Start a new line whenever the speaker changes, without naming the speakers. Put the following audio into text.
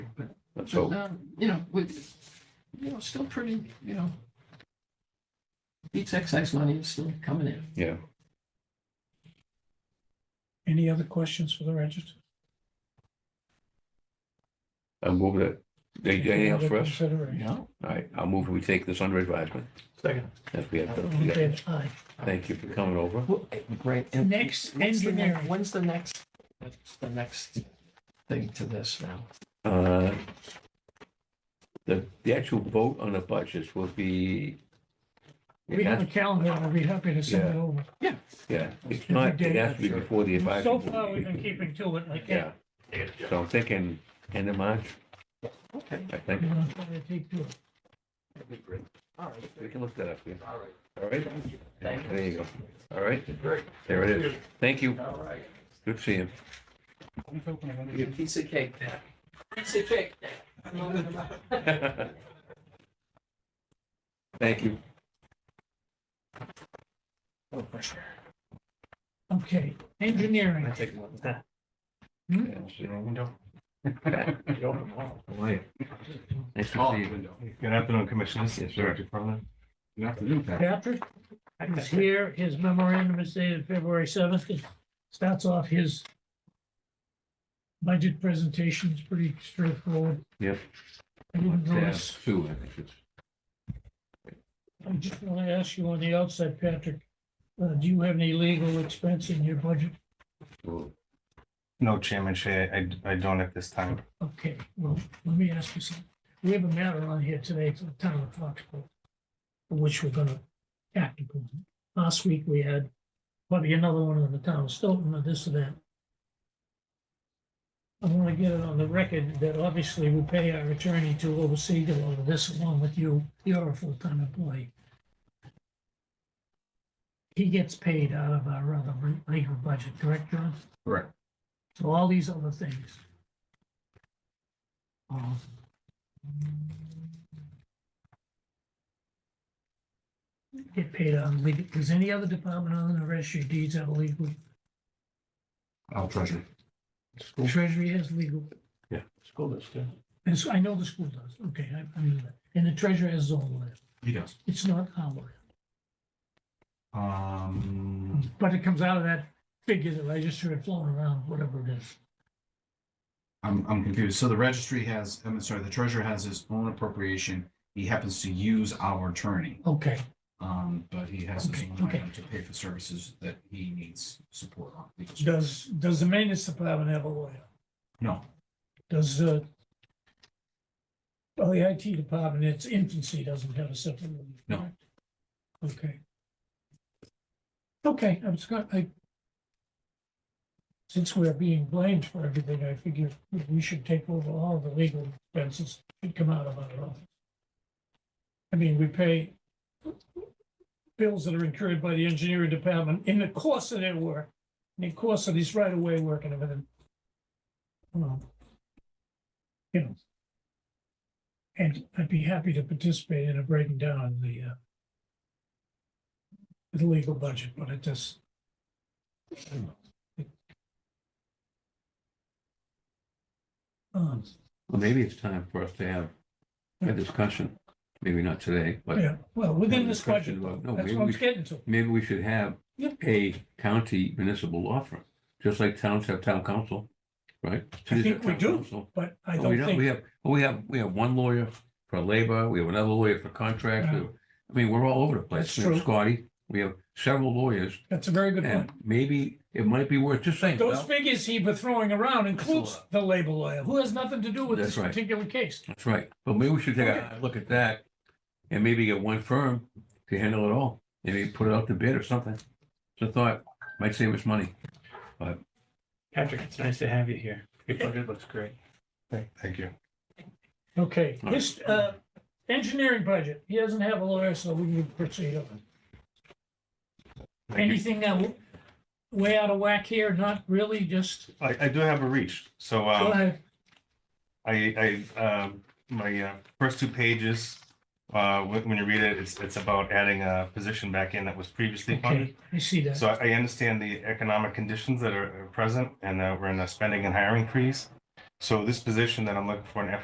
Let's
But,
hope.
um, you know, with, you know, still pretty, you know, beats excise money is still coming in.
Yeah.
Any other questions for the register?
I'll move that. Anything else for us?
Consideration.
No,
All right, I'll move we take this under advisement.
Second.
If we have,
All
to-
in
yeah.
favor? Aye.
thank you for coming over.
Well, eh, Great. and
Next,
what's the ne-
engineering.
When's the next, what's the next thing to this now?
Uh, The, the actual vote on the budgets will be.
We have a calendar, we'll be happy to send it over.
Yeah, it's not, it has to be before the advisory.
So far, we've been keeping to it like
Yeah,
that.
so I'm thinking end of March,
Okay,
I think.
We're gonna try to keep to it.
all right.
We can look that up, yeah.
All right.
All right,
Thank you. Thank you.
there you go. All right,
Great.
there it is. Thank you.
All right.
Good seeing
Your piece of cake there. Piece of cake there.
you. Thank you.
Okay, engineering,
take one.
Window?
How are you?
Nice
Oh,
to see you.
window.
Good afternoon, Commissioners.
Yes, sir.
Director Cronin. Good afternoon, Pat.
Patrick is here, his memorandum is dated February seventh, it starts off his budget presentation, it's pretty straightforward.
Yep.
I didn't
Yeah,
notice
Sue, I think it's.
I just want to ask you on the outside, Patrick, uh, do you have any legal expense in your budget?
Sue.
No, Chairman Shea, I, I don't at this time.
Okay, well, let me ask you something. We have a matter on here today for the town of Foxborough, which we're gonna act upon. Last week, we had probably another one in the town of Stoughton or this or that. I want to get it on the record that obviously we pay our attorney to oversee all of this along with you. You're a full-time employee. He gets paid out of our other legal budget, correct, John?
Correct.
So all these other things. Um, Get paid on legal, does any other department other than the registry of deeds have a legal?
I'll treasure.
Treasury has legal,
School district.
and so I know the school does, okay, I, I knew that, and the treasurer has his own list,
He does.
it's not our list.
Um,
But it comes out of that figure that I just heard floating around, whatever it is.
I'm, I'm confused. So the registry has, I'm sorry, the treasurer has his own appropriation. He happens to use our attorney.
Okay,
Um, but he has his
Okay,
own
okay.
item to pay for services that he needs support on. legal support.
does, does the maintenance department have a lawyer?
No,
Does the, well, the IT department, its infancy doesn't have a separate. one,
No.
correct? Okay. Okay, I'm just gonna, I, since we're being blamed for everything, I figure we should take over all the legal expenses that come out of our office. I mean, we pay bills that are incurred by the engineering department in the course of their work, in the course of these right-of-way work and everything. Um, you know. And I'd be happy to participate in a breaking down of the uh. The legal budget, but it just. I don't know. It- Um,
Well, maybe it's time for us to have a discussion, maybe not today, but
yeah, well, within this budget,
Discussion about- no,
that's
maybe
what I'm
we-
getting to.
maybe we should have
Yeah.
a county municipal law firm, just like towns have town council, right?
I
Cities have
think we
town
do,
council.
but I
But We
don't
don't, we
think,
have, well, we have, we have one lawyer for labor, we have another lawyer for contracts. we
Yeah.
have- I mean, we're all over the place.
That's
We have
true.
Scotty, we have several lawyers,
that's a very good point.
and maybe it might be worth just saying,
Those
well,
figures he was throwing around includes the labor lawyer, who has nothing to do with this
That's right.
particular case.
that's right. But maybe we should take a look at that and maybe get one firm to handle it all. Maybe put it out to bid or something. It's a thought, might save us money.
Patrick, it's nice to have you here. Your budget looks great.
thank you.
Okay,
All right.
his, uh, engineering budget, he doesn't have a lawyer, so we can proceed on.
Thank you.
Anything that way out of whack here, not really, just,
I, I do have a reach, so, um.
go ahead.
I, I, um, my, uh, first two pages, uh, when, when you read it, it's, it's about adding a position back in that was previously funded.
okay, I see that.
So I, I understand the economic conditions that are are present and that we're in a spending and hiring freeze. So this position that I'm looking for in